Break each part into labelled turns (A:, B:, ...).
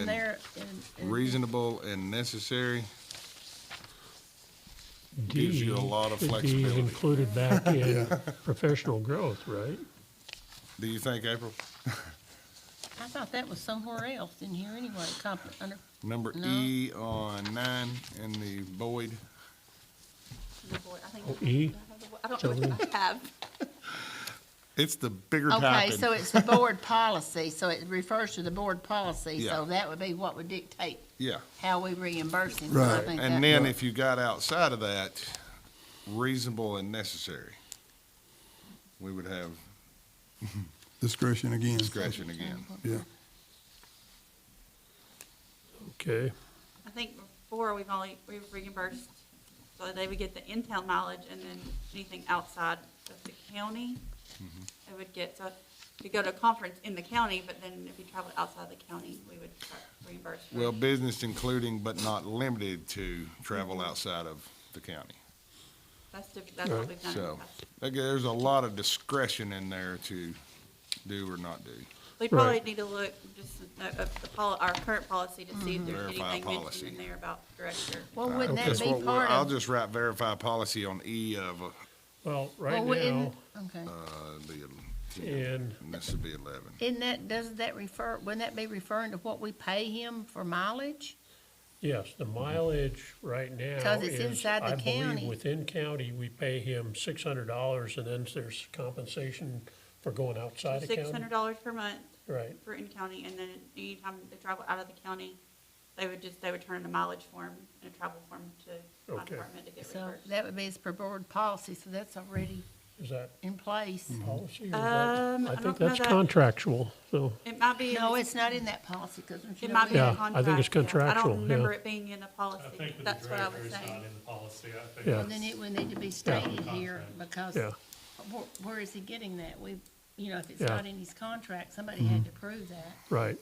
A: in there. in- in-
B: reasonable and necessary.
C: D
B: Gives you a lot of
C: should be
B: flexibility.
C: Included back in professional growth, right?
B: Do you think, April?
A: I thought that was somewhere else in here anyway, comp, under
B: Number
A: No.
B: E on nine in the Boyd,
D: The boy- I think
C: Oh,
D: the-
C: E?
D: I don't know what I have.
B: it's the bigger
A: Okay,
B: typing.
A: so it's the board policy, so it refers to the board policy,
B: Yeah.
A: so that would be what would dictate
B: Yeah,
A: how we reimburse him. So I
E: Right.
A: think that-
B: and then if you got outside of that, reasonable and necessary, we would have
E: discretion again.
B: discretion again.
E: Yeah,
C: Okay,
D: I think before, we've only, we've reimbursed, so they would get the in-town mileage, and then anything outside of the county,
B: Mm-hmm.
D: they would get, so you go to a conference in the county, but then if you travel outside the county, we would reimburse. for-
B: Well, business including but not limited to travel outside of the county.
D: That's, diff- that's what we've done. in the
B: So,
D: past.
B: like, there's a lot of discretion in there to do or not do.
D: We probably need to look, just, at the pol our current policy to see if there's
B: Mm-hmm. Verify
D: anything mentioned
B: policy.
D: in there about director.
A: Well, wouldn't that
B: uh, That's
A: be
B: what we're-
A: part
B: I'll
A: of?
B: just write verify policy on E of, uh,
C: well,
A: well,
C: right now,
A: wouldn't- Okay,
B: the,
C: and
B: and this would be eleven.
A: isn't that, doesn't that refer, wouldn't that be referring to what we pay him for mileage?
C: yes, the mileage right now
A: 'Cause it's
C: is,
A: inside the
C: I believe,
A: county.
C: within county, we pay him six hundred dollars and then there's compensation for going outside of
D: Six
C: county.
D: hundred dollars per month
C: Right,
D: for in-county, and then anytime they travel out of the county, they would just, they would turn in a mileage form and a travel form to my
C: Okay.
D: department to get
A: So
D: reimbursed.
A: that would be his per board policy, so that's already
C: is that
A: in place.
B: Mm-hmm.
C: policy or is that?
D: Um, I
C: think
D: don't know
C: that's
D: that-
C: contractual, so,
D: It might be,
A: No,
D: it
A: it's not in that policy, because there's no.
D: might be in
C: Yeah,
D: the
C: I
D: contract.
C: think it's
D: I
C: contractual,
D: don't
C: yeah.
D: remember it being in the
F: I
D: policy,
F: think with the
D: that's what I
F: director,
D: was
F: it's not
D: saying.
F: in the policy, I think.
C: Yeah.
A: And then it would need to be stated here, because
C: yeah,
A: where, where is he getting that? We, you know, if it's
C: Yeah.
A: not in his contract, somebody had to prove that.
C: right.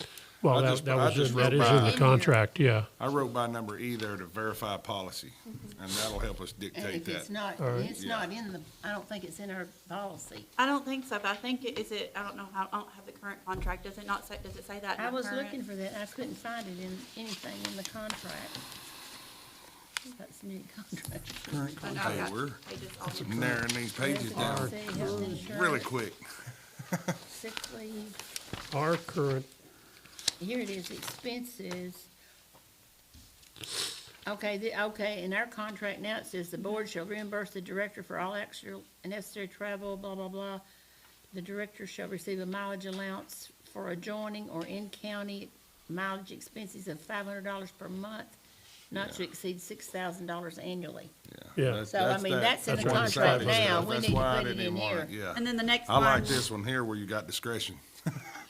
B: I
C: Well, that,
B: just-
C: that
B: I
C: was,
B: just
C: in- that
B: wrote
C: is in
B: by-
C: the contract, yeah,
B: I wrote by number E there to verify policy, and that'll help us
A: Mm-hmm. And
B: dictate
A: if it's
B: that.
A: not,
C: All right.
A: it's
B: Yeah.
A: not in the, I don't think it's in our policy.
D: I don't think so, but I think it, is it, I don't know how, I don't have the current contract, does it not say, does it say that in
A: I
D: the
A: was
D: current?
A: looking for that, I couldn't find it in anything in the contract. That's new contract.
E: current
D: But
B: Hey,
D: I've got
B: we're-
D: pages all over.
B: Narrowing these pages down really quick.
A: Sick leave,
C: our current,
A: here it is, expenses. Okay, the, okay, in our contract now, it says the board shall reimburse the director for all extra and necessary travel, blah, blah, blah. The director shall receive a mileage allowance for adjoining or in-county mileage expenses of five hundred dollars per month, not to exceed six thousand dollars annually.
C: yeah,
A: So, I mean, that's in
C: the
B: why I
C: contract
B: decided-
A: now. We
B: that's
A: need to
B: why I
A: put it
B: didn't
A: in
B: want it,
A: here.
B: Yeah,
D: And then the next
B: I
D: one.
B: like this one here where you got discretion.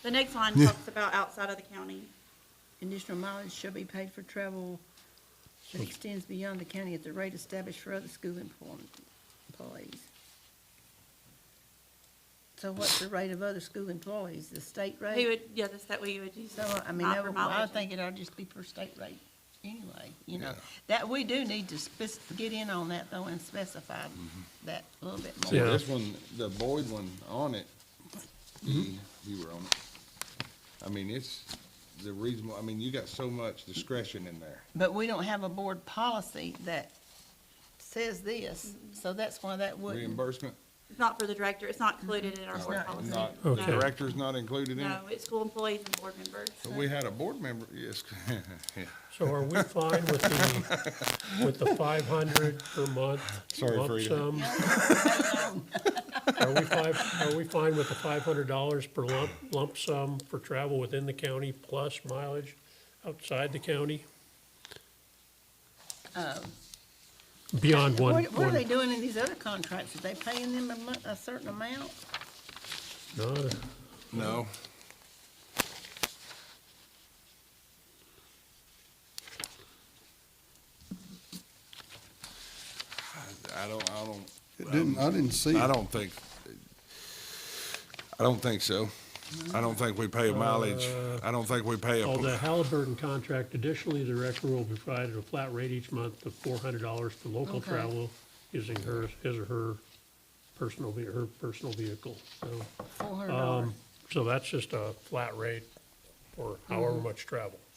D: The next line talks about outside of the county.
A: Additional mileage shall be paid for travel that extends beyond the county at the rate established for other school employ- employees. So what's the rate of other school employees, the state
D: He
A: rate?
D: would, yeah, that's that way you would use.
A: So, I mean,
D: not
A: that
D: for
A: would- I
D: mileage.
A: would think it ought to just be per state rate anyway, you know?
B: Yeah.
A: That, we do need to spec- get in on that though and specify that a little bit
B: See,
A: more.
C: Yeah.
B: this one, the Boyd one on it, you you were on it. I mean, it's the reasonable, I mean, you got so much discretion in there.
A: But we don't have a board policy that says this, so that's why that wouldn't.
B: Reimbursement,
D: It's not for the director, it's not included in our
A: It's
D: board
A: not
D: policy.
B: not,
D: No.
C: Okay.
B: director's not included in it?
D: No, it's school employees and board members.
B: But we had a board member, yes, yeah,
C: so are we fine with the, with the five hundred per month
B: Sorry,
C: lump
B: Frida.
C: sum? Are we five, are we fine with the five hundred dollars per lump, lump sum for travel within the county plus mileage outside the county? Beyond one,
A: Um. What, what are they
C: one,
A: doing in these other contracts? Are they paying them a mon- a certain amount?
C: no,
B: no. I don't, I don't.
E: It didn't, I didn't see
B: I
E: it.
B: don't think, I don't think so. I don't think we pay a mileage. I don't think we pay
C: on the
B: a,
C: Halliburton contract, additionally, the director will be provided a flat rate each month of four hundred dollars for local
A: Okay.
C: travel using her, his or her personal, ve- her personal vehicle, so. Um,
A: Four hundred dollars.
C: So that's just a flat rate for however much travel.